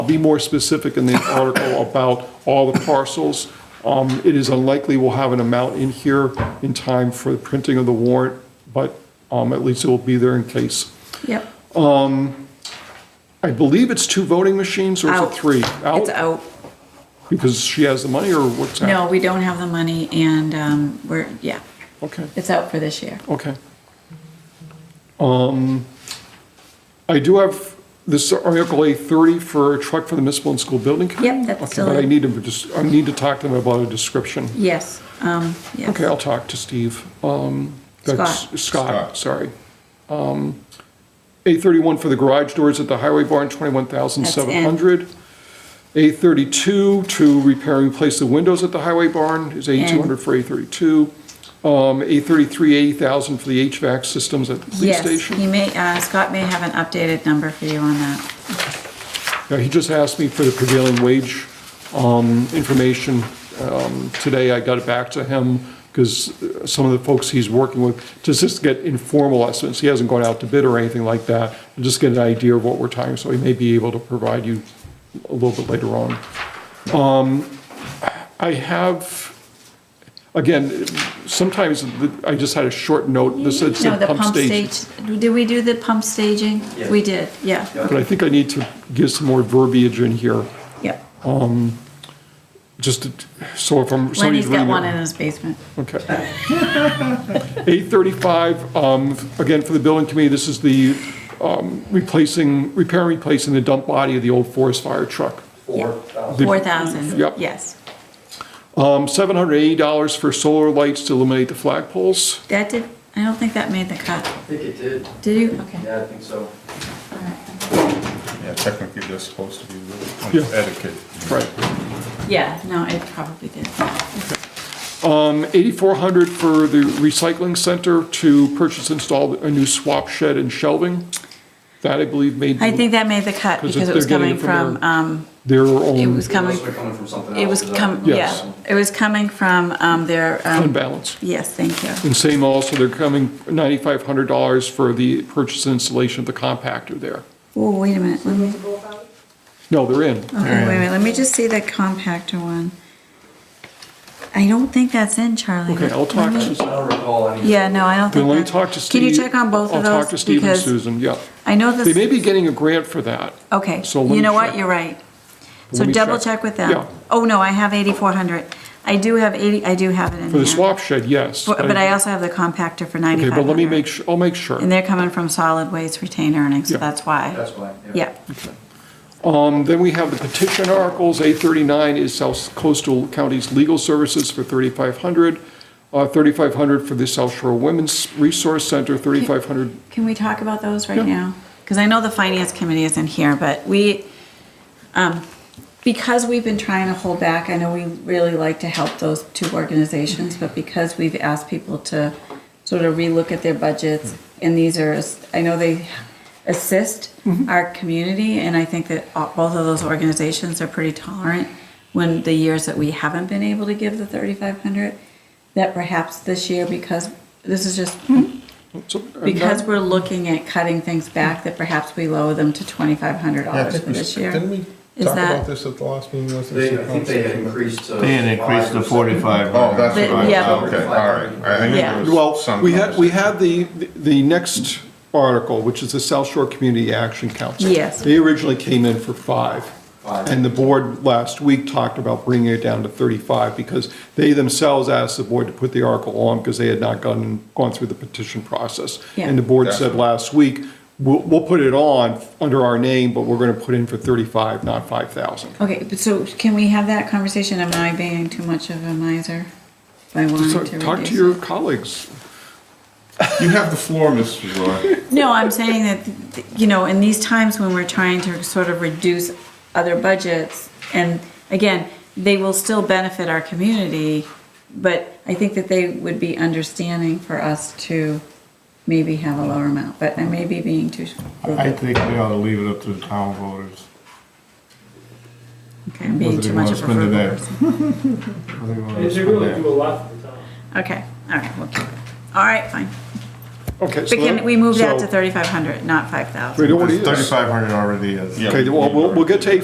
I'll be more specific in the article about all the parcels. Um, It is unlikely we'll have an amount in here in time for the printing of the warrant, but um, at least it will be there in case. Yep. I believe it's two voting machines, or is it Out. three? It's out. Because she has the money, or what's that? No, we don't have the money and, um, we're, yeah, Okay, it's out for this year. okay. Um, I do have this Article A30 for a truck for the municipal and school building committee. Yep, that's Okay, still But I in. need to, just- I need to talk to them about a description. Yes, um, yes. Okay, I'll talk to Steve. Um, that's- Scott, Scott. sorry. Um, 831 for the garage doors at the highway barn, 21,700. 832 to repair and replace the windows at the highway barn is 8,200 for 832. Um, 833, 80,000 for the HVAC systems at the police Yes, station. he may, uh, Scott may have an updated number for you on that. Yeah, he just asked me for the prevailing wage um, information. Um, Today, I got it back to him because some of the folks he's working with, to just get informal estimates. He hasn't gone out to bid or anything like that. Just get an idea of what we're talking, so he may be able to provide you a little bit later on. Um, I have, again, sometimes the- I just had a short note. This is No, the the pump station. stage- Did we do the pump staging? We did, yeah. But I think I need to give some more verbiage in here. Yep. just to- so if I'm. Lenny's somebody's got reading one it- in his basement. Okay. Eight thirty-five, um, again, for the building committee, this is the, um, replacing, repair and replacing the dump body of the old forest fire truck. The- Four thousand, Yep. yes. Um, seven hundred eighty dollars for solar lights to illuminate the flagpoles. That did, I don't think that made the cut. I think it did. Did you? Okay. Yeah, I think so. All right. Yeah, technically, they're supposed to be really Yeah. on etiquette. Right. Yeah, no, it probably did. Um, eighty-four hundred for the recycling center to purchase, and install a new swap shed and shelving. That I believe made. I think that made the cut 'Cause if because it they're was getting coming it from from, um, Their own. it was coming, Unless they're coming from something else. it was is that- com, Yes. yeah, it was coming from, um, their, um, Fund balance. yes, thank you. And same also, they're coming $9,500 for the purchase and installation of the compactor there. Oh, wait a minute, let me, okay, No, they're in. wait a minute, let me just see the compactor one. I don't think that's in, Charlie. Okay, I'll talk I to, don't recall any. Yeah, no, I then don't think. let me that- talk to Steve. Can you check on both of those? I'll talk to Steve and Because Susan, yeah. I know this. They may be getting a grant for that. Okay, So let you me know what, check. you're right. Let So me double check. check with them. Yeah. Oh, no, I have 8,400. I do have 80, I do have it in For the here. swap shed, yes. But but I also have the compactor for 9,500. Okay, but let me make, su- I'll make sure. And they're coming from solid waste retained earnings, so Yeah. that's why. That's why. Yeah, Um, Then we have the petition articles. A39 is South Coastal County's Legal Services for 3,500. uh, 3,500 for the South Shore Women's Resource Center, 3,500 can we talk about those right now? Because I know the finance committee isn't here, but we, um, because we've been trying to hold back, I know we really like to help those two organizations, but because we've asked people to sort of relook at their budgets, and these are, I know they assist our community, and I think that all- both of those organizations are pretty tolerant when the years that we haven't been able to give the thirty-five hundred, that perhaps this year, because this is just So, uh, because no, we're looking at cutting things back, that perhaps we lower them to twenty-five hundred Yeah, I dollars think for we, this year. didn't we Is talk that- about this at the last meeting? wasn't it? They, I think they had increased to. They had increased to five or something. forty-five Oh, hundred. that's what But- yeah. I, okay, all right. I knew Yeah. there was Well, some we had, we conversation. had the, the next article, which is the South Shore Community Action Council. Yes. They originally came in for five. Five. And the board last week talked about bringing it down to 35 because they themselves asked the board to put the article on because they had not gone, gone through the petition process. Yeah. And the board That's- said last week, we'll, we'll put it on under our name, but we're going to put in for 35, not 5,000. Okay, but so can we have that conversation? Am I being too much of a miser by So wanting to Talk to reduce? your it? colleagues. You have the floor, Mrs. Roy. No, I'm saying that, you know, in these times when we're trying to sort of reduce other budgets, and again, they will still benefit our community, but I think that they would be understanding for us to maybe have a lower amount, but I may be being too. I think we ought to leave it up to the town voters. Okay, I'm being Wasn't too even much wanna of a spend it there. frugal person. I think we ought to They spend really that. do a lot for the town. Okay, all right, we'll keep it. All right, fine. Okay. so But can that- we move that so- to 3,500, not 5,000? We don't want to. Thirty-five hundred already is. Yeah. Okay, well, we'll, we'll get to eight